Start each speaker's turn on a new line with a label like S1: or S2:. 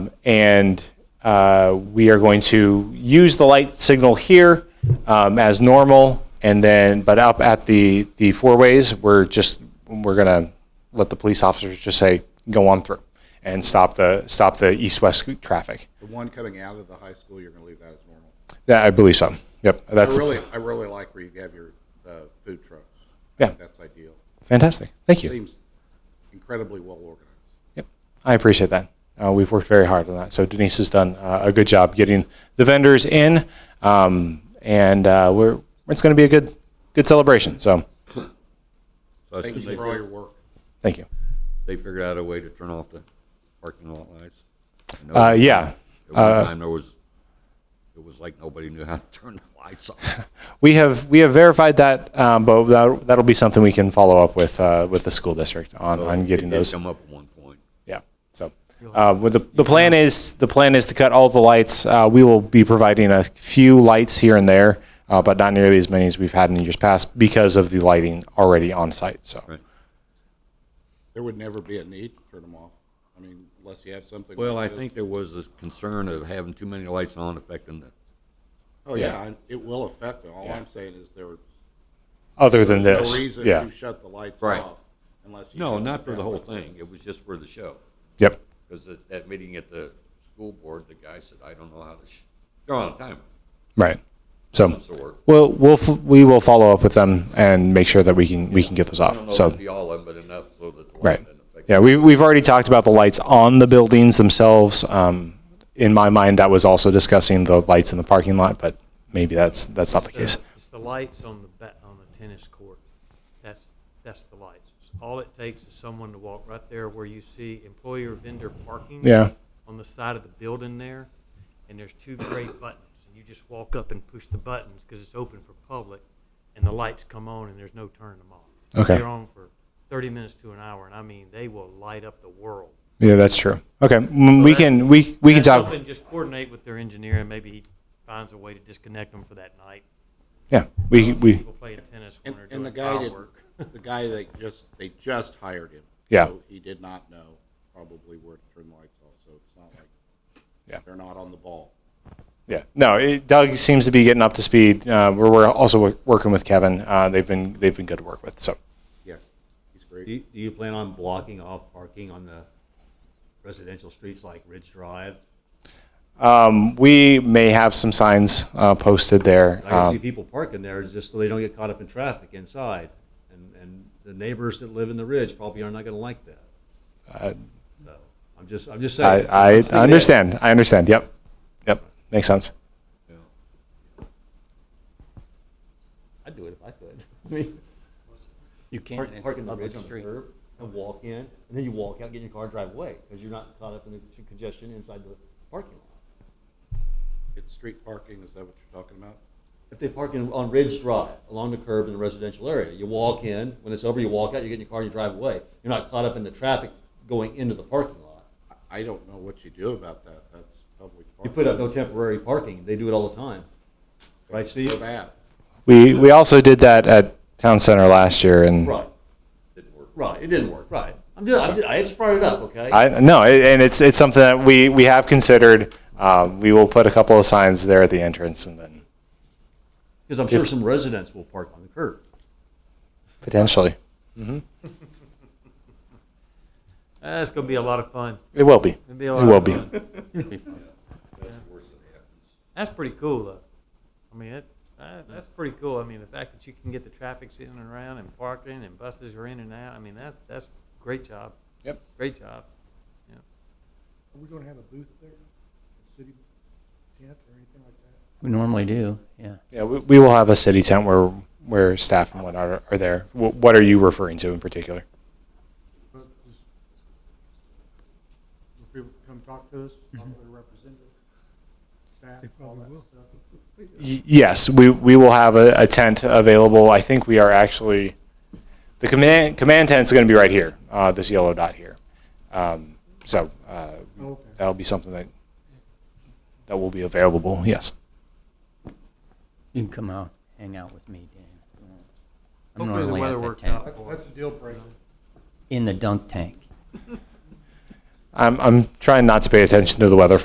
S1: and uh, we are going to use the light signal here um, as normal, and then, but up at the, the four ways, we're just, we're gonna let the police officers just say, go on through, and stop the, stop the east-west traffic.
S2: The one coming out of the high school, you're going to leave that as normal.
S1: Yeah, I believe so. Yep,
S2: I
S1: that's
S2: really, I really like where you have your uh, food trucks.
S1: Yeah.
S2: that's ideal.
S1: fantastic. Thank you.
S2: Seems incredibly well organized.
S1: Yep, I appreciate that. Uh, we've worked very hard on that. So Denise has done uh, a good job getting the vendors in, um, and uh, we're it's going to be a good good celebration. So
S3: So I
S2: Thank
S3: assume
S2: you
S3: they,
S2: for all your work.
S1: thank you.
S3: they figured out a way to turn off the parking lot lights. I know
S1: Uh,
S3: at
S1: yeah,
S3: one
S1: Uh,
S3: time there was, it was like nobody knew how to turn the lights off.
S1: we have we have verified that, um, but that, that'll be something we can follow up with uh, with the school district on on getting
S3: It did
S1: those.
S3: come up at one point.
S1: Yeah. So, uh, with the, the plan is, the plan is to cut all the lights. Uh, we will be providing a few lights here and there, uh, but not nearly as many as we've had in years past because of the lighting already on site. So,
S3: Right.
S2: There would never be a need to turn them off. I mean, unless you have something.
S3: Well, I
S2: like this.
S3: think there was this concern of having too many lights on affecting the,
S2: Oh, yeah, I- it will affect them. All I'm saying is there was
S1: other than
S2: no
S1: this,
S2: reason
S1: yeah,
S2: to shut the lights
S3: Right.
S2: off unless you.
S3: no,
S2: shut
S3: not for
S2: them
S3: the whole
S2: down.
S3: thing. It was just for the show.
S1: yep,
S3: Because at that meeting at the school board, the guy said, I don't know how to, sh- they're on a timer
S1: right.
S3: of
S1: So,
S3: some sort.
S1: we'll we'll f- we will follow up with them and make sure that we can we can get those
S3: I don't
S1: off.
S3: know if
S1: So,
S3: it'd be all in, but enough so that the
S1: Right.
S3: light didn't affect.
S1: Yeah, we, we've already talked about the lights on the buildings themselves. Um, in my mind, that was also discussing the lights in the parking lot, but maybe that's, that's not the case.
S4: It's the lights on the ba, on the tennis court. That's, that's the lights. All it takes is someone to walk right there where you see employer vendor parking.
S1: Yeah.
S4: On the side of the building there, and there's two gray buttons, and you just walk up and push the buttons, because it's open for public, and the lights come on and there's no turning them off.
S1: Okay.
S4: They're on for thirty minutes to an hour, and I mean, they will light up the world.
S1: Yeah, that's true. Okay, mm, we
S4: that's-
S1: can, we, we can
S4: That's
S1: talk,
S4: something, Just coordinate with their engineer, and maybe he finds a way to disconnect them for that night.
S1: yeah, we, we,
S4: People playing tennis when
S2: And,
S4: they're
S2: and the
S4: doing
S2: guy did,
S4: firework.
S2: the guy that just, they just hired him.
S1: Yeah.
S2: So He did not know probably where to turn the lights off, so it's not like.
S1: Yeah.
S2: They're not on the ball.
S1: yeah. No, it- Doug seems to be getting up to speed. Uh, we're, we're also wo- working with Kevin. Uh, they've been, they've been good to work with, so.
S2: Yeah, he's great.
S5: Do you, do you plan on blocking off parking on the residential streets like Ridge Drive?
S1: We may have some signs, uh, posted there.
S5: I can
S1: Um,
S5: see people parking there just so they don't get caught up in traffic inside. And, and the neighbors that live in the Ridge probably are not gonna like that. So, I'm just, I'm just
S1: I,
S5: saying.
S1: I
S5: Just thinking ahead.
S1: understand, I understand, yep, yep, makes sense.
S3: Yeah.
S5: I'd do it if I could. I mean, you can't park in the ridge on the curb and walk in, and then you walk out, get in your car, and drive away because you're not caught up in the congestion inside the parking lot.
S2: It's street parking, is that what you're talking about?
S5: If they park in, on Ridge Drive along the curb in the residential area, you walk in. When it's over, you walk out. You get in your car and you drive away. You're not caught up in the traffic going into the parking lot.
S2: I I don't know what you do about that, that's public
S5: You
S2: parking.
S5: put up no temporary parking. They do it all the time, right,
S2: So
S5: Steve?
S2: bad.
S1: We, we also did that at Town Center last year and.
S5: Right,
S3: Didn't work.
S5: right. It didn't work. Right. I'm just, I'm just I just brought it up. Okay.
S1: I no, it- and it's it's something that we we have considered. Um, we will put a couple of signs there at the entrance, and then
S5: Because I'm sure some residents will park on the curb.
S1: potentially
S4: That's gonna be a lot of fun.
S1: it will be.
S4: It'll be a
S1: It
S4: lot
S1: will
S4: of
S1: be.
S4: fun. That's pretty cool, though. I mean, it, uh, that's pretty cool. I mean, the fact that you can get the traffic sitting around and parking and buses are in and out. I mean, that's that's great job.
S1: Yep.
S4: Great job. Yeah.
S6: Are we gonna have a booth there? A City tent or anything like that?
S7: We normally do, yeah.
S1: Yeah, we, we will have a city tent where where staff and whatnot are, are there. Wh- what are you referring to in particular?
S6: But just, will people come talk to us,
S2: Mm-hmm.
S6: talk to their representative, staff, all that stuff?
S1: Y- yes, we we will have a, a tent available. I think we are actually the command command tent is going to be right here. Uh, this yellow dot here. Um, so uh,
S6: Okay.
S1: that'll be something that that will be available. Yes.
S7: You can come out, hang out with me, Dan. if you want. I'm
S4: Hopefully the
S7: normally at
S4: weather
S7: the
S4: works
S7: tank.
S4: out.
S6: That- That's a deal breaker.
S7: In the dunk tank.
S1: I'm, I'm trying not to pay attention to the weather